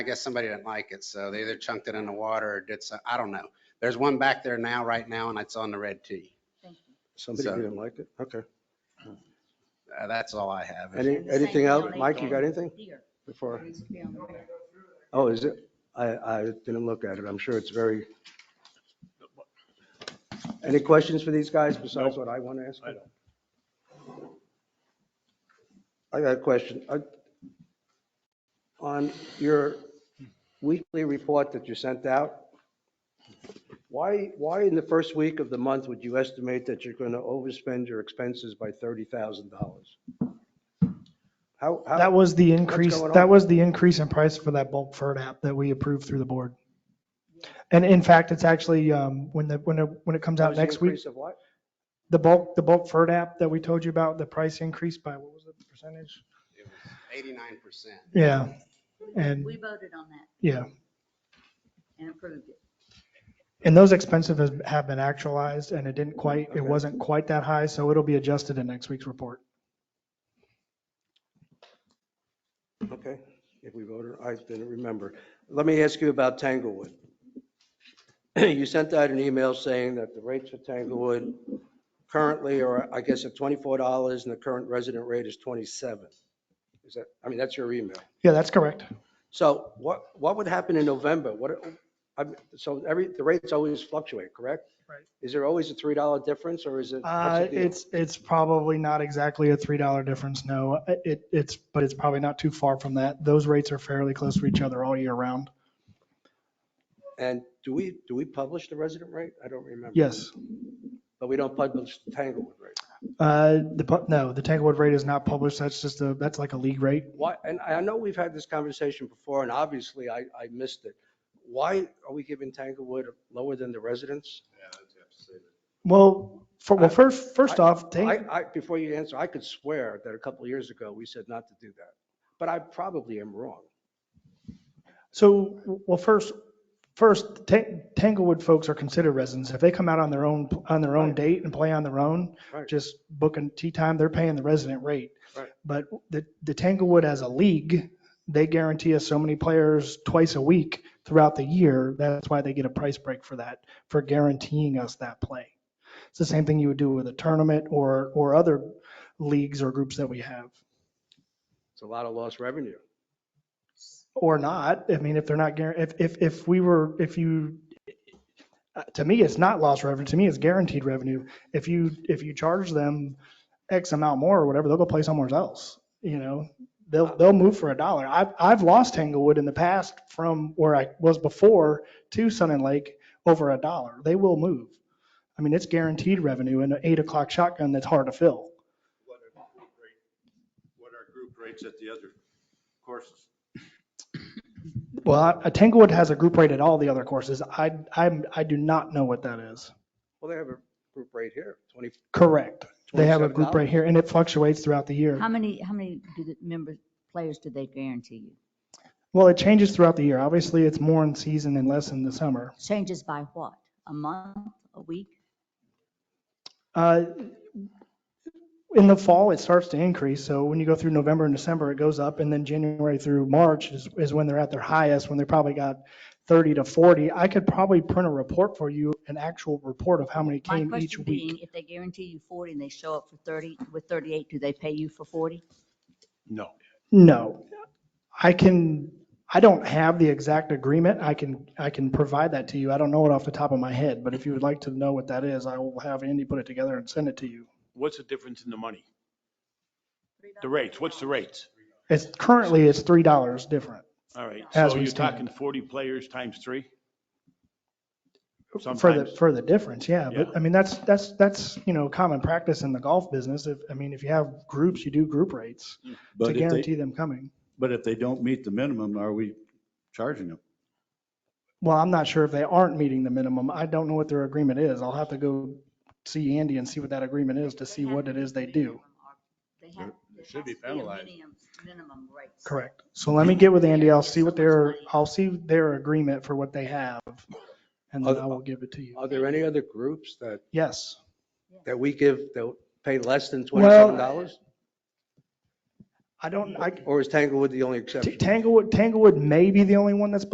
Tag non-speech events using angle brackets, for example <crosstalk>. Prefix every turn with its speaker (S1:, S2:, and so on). S1: I guess somebody didn't like it, so they either chunked it in the water or did some, I don't know. There's one back there now, right now, and it's on the red tee.
S2: Somebody
S1: So-
S2: didn't like it? Okay.
S1: Uh, That's all I have.
S2: Any,
S3: And the same
S2: anything
S3: thing
S2: else?
S3: on
S2: Mike, you got
S3: April.
S2: anything
S3: Deer.
S2: before?
S3: Used to be on the road.
S2: Oh, is it? I, I didn't look at it. I'm sure it's very. Any questions for these guys besides what I want to ask?
S4: I don't.
S2: I got a question. I- On your weekly report that you sent out, why, why in the first week of the month would you estimate that you're going to overspend your expenses by $30,000? How, how?
S5: That was the increase,
S2: going
S5: that
S2: on?
S5: was the increase in price for that bulk FERT app that we approved through the board. And in fact, it's actually, um, when the, when it, when it comes
S2: that
S5: out
S2: was the
S5: next week,
S2: increase Of what?
S5: the bulk, the bulk FERT app that we told you about, the price increased by, what was it, percentage?
S1: Eighty-nine percent.
S5: Yeah, and,
S3: We voted on that
S5: yeah.
S3: and approved it.
S5: And those expenses has- have been actualized and it didn't quite,
S2: Okay.
S5: it wasn't quite that high, so it'll be adjusted in next week's report.
S2: Okay, if we voted, I didn't remember. Let me ask you about Tanglewood. <clears throat> You sent out an email saying that the rates for Tanglewood currently are, I guess, at $24 and the current resident rate is 27. Is that, I mean, that's your email.
S5: Yeah, that's correct.
S2: So what, what would happen in November? What, I'm- so every, the rates always fluctuate, correct?
S5: Right.
S2: Is there always a $3 difference or is it? what's
S5: Uh,
S2: the deal?
S5: it's, it's probably not exactly a $3 difference, no. It, it's, but it's probably not too far from that. Those rates are fairly close to each other all year round.
S2: And do we, do we publish the resident rate? I don't remember.
S5: Yes.
S2: But we don't publish the Tanglewood rate.
S5: Uh, the, pu- no, the Tanglewood rate is not published. That's just a, that's like a league rate.
S2: Why, and I know we've had this conversation before, and obviously I, I missed it. Why are we giving Tanglewood lower than the residents?
S5: Well, for, well,
S2: I-
S5: first, first off,
S2: I,
S5: Tang-
S2: I, before you answer, I could swear that a couple of years ago, we said not to do that, but I probably am wrong.
S5: so, well, first, first, Tang- Tanglewood folks are considered residents. If they come out on their own, on their own
S2: Right.
S5: date and play on their own,
S2: Right.
S5: just booking tea time, they're paying the resident rate.
S2: Right.
S5: But the, the Tanglewood as a league, they guarantee us so many players twice a week throughout the year. That's why they get a price break for that, for guaranteeing us that play. It's the same thing you would do with a tournament or, or other leagues or groups that we have.
S2: It's a lot of lost revenue.
S5: Or not. I mean, if they're not, guar- if, if, if we were, if you, uh, to me, it's not lost revenue. To me, it's guaranteed revenue. If you, if you charge them X amount more or whatever, they'll go play somewhere else. You know, they'll, they'll move for a dollar. I've, I've lost Tanglewood in the past from where I was before to Sun and Lake over a dollar. They will move. I mean, it's guaranteed revenue in an eight o'clock shotgun that's hard to fill.
S4: What are group rate- what are group rates at the other courses?
S5: Well, I- Tanglewood has a group rate at all the other courses. I, I'm, I do not know what that is.
S2: Well, they have a group rate here, 20,
S5: Correct. They have a group
S2: $27.
S5: rate here and it fluctuates throughout the
S3: How
S5: year.
S3: many, how many do the members, players do they guarantee you?
S5: Well, it changes throughout the year. Obviously, it's more in season and less in the summer.
S3: Changes by what? A month, a week?
S5: Uh, In the fall, it starts to increase. So when you go through November and December, it goes up. And then January through March is, is when they're at their highest, when they probably got 30 to 40. I could probably print a report for you, an actual report of how many
S3: My
S5: came each
S3: question being,
S5: week.
S3: if they guarantee you 40 and they show up for 30, with 38, do they pay you for 40?
S4: No.
S5: No, I can, I don't have the exact agreement. I can, I can provide that to you. I don't know it off the top of my head, but if you would like to know what that is, I will have Andy put it together and send it to you.
S4: What's the difference in the money? The rates, what's the rates?
S5: It's currently, it's $3 different
S4: All right,
S5: As
S4: so
S5: we
S4: you're
S5: stand.
S4: talking 40 players times three?
S5: for the,
S4: Sometimes.
S5: for the difference. Yeah.
S4: Yeah.
S5: But I mean, that's, that's, that's, you know, common practice in the golf business. If, I mean, if you have groups, you do group rates to
S6: But if
S5: guarantee
S6: they,
S5: them coming.
S6: but if they don't meet the minimum, are we charging them?
S5: Well, I'm not sure if they aren't meeting the minimum. I don't know what their agreement is. I'll have to go see Andy and see what that agreement is to see what it is they do.
S3: They have. there
S4: should be
S3: has to a
S4: penalized.
S3: minimum- Minimum rates.
S5: Correct. So let me get with Andy. I'll see what their, I'll see their agreement for what they have. And then I will give it to you.
S2: Are there any other groups that,
S5: Yes.
S2: that we give, that pay less than
S5: Well-
S2: $27?
S5: I don't, I,
S2: Or is Tanglewood the only exception? uh,
S5: Tanglewood, Tanglewood may be the only one that's